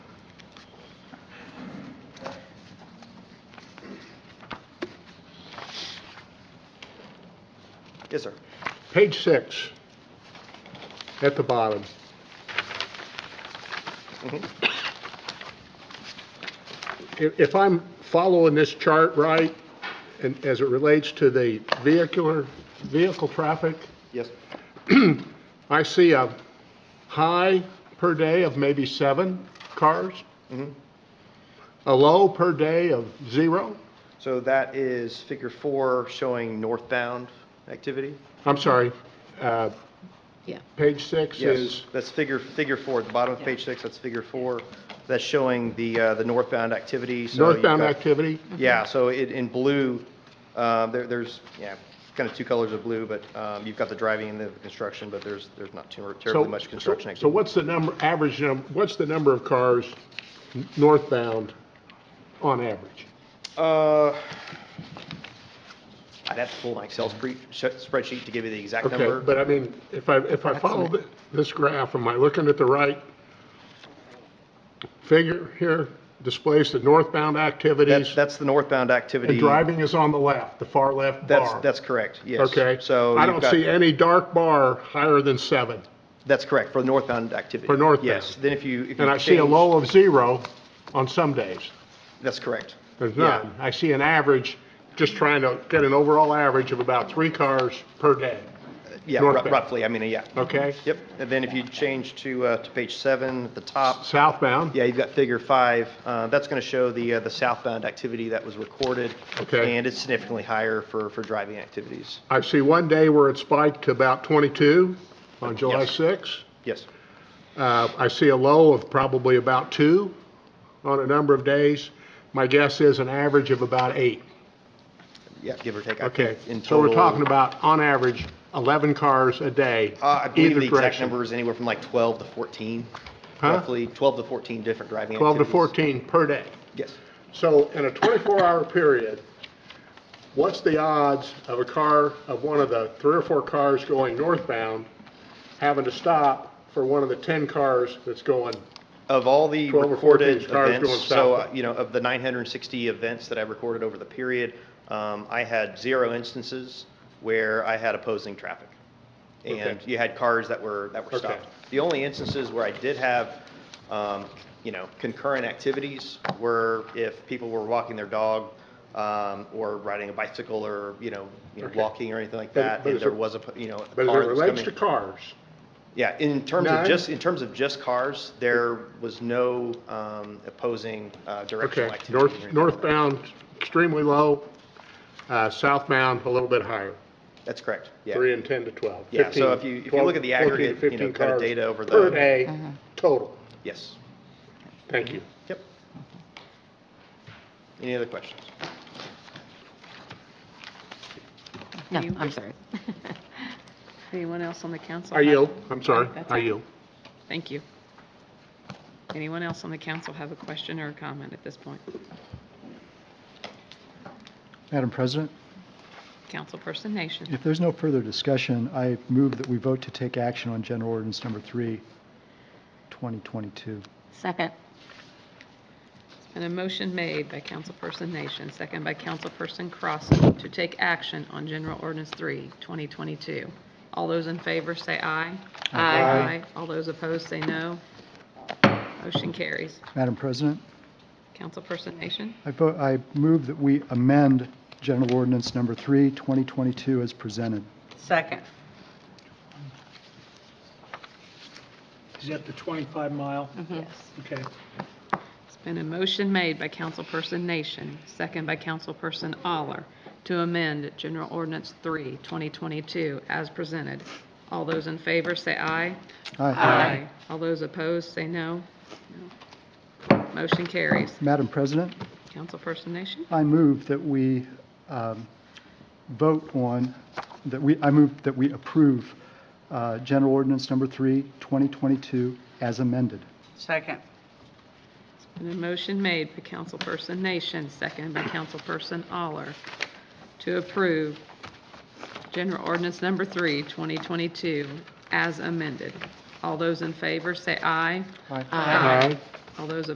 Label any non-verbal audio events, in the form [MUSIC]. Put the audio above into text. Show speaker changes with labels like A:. A: Yes, sir.
B: Page six, at the bottom. If if I'm following this chart right, and as it relates to the vehicular, vehicle traffic,
A: Yes.
B: I see a high per day of maybe seven cars, a low per day of zero.
A: So that is figure four showing northbound activity.
B: I'm sorry, uh,
C: Yeah.
B: page six is,
A: Yes, that's figure, figure four, at the bottom of page six, that's figure four. That's showing the, uh, the northbound activity, so. you've
B: northbound
A: got-
B: activity,
A: Yeah, so it, in blue, uh, there, there's, yeah, kind of two colors of blue, but, um, you've got the driving and the construction, but there's, there's not too- terribly
B: So-
A: much
B: so-
A: construction activity.
B: So what's the number, average num, what's the number of cars n- northbound on average?
A: Uh, I'd have to pull my Excel spre- sh- spreadsheet to give you the exact
B: Okay,
A: number.
B: but I mean, if I, if I follow thi- this graph, am I looking at the right figure here? Displays the northbound
A: That's,
B: activities,
A: that's the northbound activity.
B: and driving is on the left, the far left
A: That's,
B: bar.
A: that's correct, yes.
B: Okay?
A: So.
B: I
A: you've
B: don't
A: got-
B: see any dark bar higher than seven,
A: That's correct, for northbound activity.
B: For northbound.
A: Yes, then if you. if you
B: and I see a
A: change-
B: low of zero on some days.
A: That's correct.
B: There's
A: Yeah.
B: none. I see an average, just trying to get an overall average of about three cars per day,
A: Yeah, ru-
B: Northbound.
A: roughly, I mean, yeah.
B: okay?
A: Yep, and then if you change to, uh, to page seven, at the top,
B: Southbound,
A: yeah, you've got figure five. Uh, that's going to show the, uh, the southbound activity that was recorded.
B: Okay.
A: And it's significantly higher for, for driving activities.
B: I see one day where it spiked to about 22 on July
A: Yes.
B: 6.
A: Yes,
B: Uh, I see a low of probably about two on a number of days. My guess is an average of about eight,
A: yeah, give or take. I
B: okay?
A: think in
B: So we're
A: total-
B: talking about, on average, 11 cars a day,
A: Uh, I believe
B: either
A: the exact
B: direction.
A: number is anywhere from like 12 to 14,
B: Huh?
A: roughly 12 to 14 different driving
B: 12 to
A: activities.
B: 14 per day.
A: Yes.
B: So in a 24-hour period, what's the odds of a car, of one of the three or four cars going northbound, having to stop for one of the 10 cars that's going,
A: Of all the
B: 12 or 14
A: recorded
B: cars
A: events,
B: going
A: so, uh,
B: southbound.
A: you know, of the 960 events that I recorded over the period, um, I had zero instances where I had opposing traffic. And
B: Okay.
A: you had cars that were, that were
B: Okay.
A: stopped. The only instances where I did have, um, you know, concurrent activities were if people were walking their dog, um, or riding a bicycle or, you know, you know,
B: Okay.
A: walking or anything like
B: But-
A: that,
B: but
A: and
B: is
A: there
B: it-
A: was a, p- you know, a
B: but as
A: car
B: it
A: that was
B: relates
A: coming.
B: to cars,
A: Yeah, in terms of
B: Nine?
A: just, in terms of just cars, there was no um, opposing uh, directional
B: okay,
A: activity. or
B: north
A: anything like that.
B: northbound extremely low, uh, southbound a little bit higher,
A: That's correct, yeah.
B: 3 and 10 to 12.
A: Yeah, so
B: 15,
A: if you- if you look at the
B: 12, 14 to
A: aggregate, you know,
B: 15
A: kind of
B: cars
A: data over
B: Per
A: the-
B: day,
D: Uh-huh.
B: total.
A: Yes,
B: Thank you.
D: Mm-hmm.
A: yep. Any other questions?
C: No, I'm sorry. [LAUGHS]
D: Anyone else on the council?
B: I
D: have-
B: yield, I'm sorry,
D: That's
B: I
D: it.
B: yield.
D: Thank you. Anyone else on the council have a question or a comment at this point?
E: Madam President,
D: Councilperson Nation,
E: if there's no further discussion, I move that we vote to take action on General Ordinance Number 3, 2022.
C: Second.
D: it's been a motion made by Councilperson Nation, second by Councilperson Crossen, to take action on General Ordinance 3, 2022. All those in favor say aye.
B: Aye.
D: All those opposed say no. Motion carries.
E: Madam President,
D: Councilperson Nation,
E: I vote, I move that we amend General Ordinance Number 3, 2022 as presented.
C: Second.
F: Is that the 25 mile?
C: Yes.
F: Okay.
D: it's been a motion made by Councilperson Nation, second by Councilperson Aller, to amend General Ordinance 3, 2022, as presented. All those in favor say aye. All those opposed say no. No. Motion carries.
E: Madam President,
D: Councilperson Nation,
E: I move that we um, vote on, that we, I move that we approve uh, General Ordinance Number 3, 2022 as amended.
G: Second.
D: it's been a motion made by Councilperson Nation, second by Councilperson Aller, to approve General Ordinance Number 3, 2022, as amended. All those in favor say aye.
E: Aye.
D: All those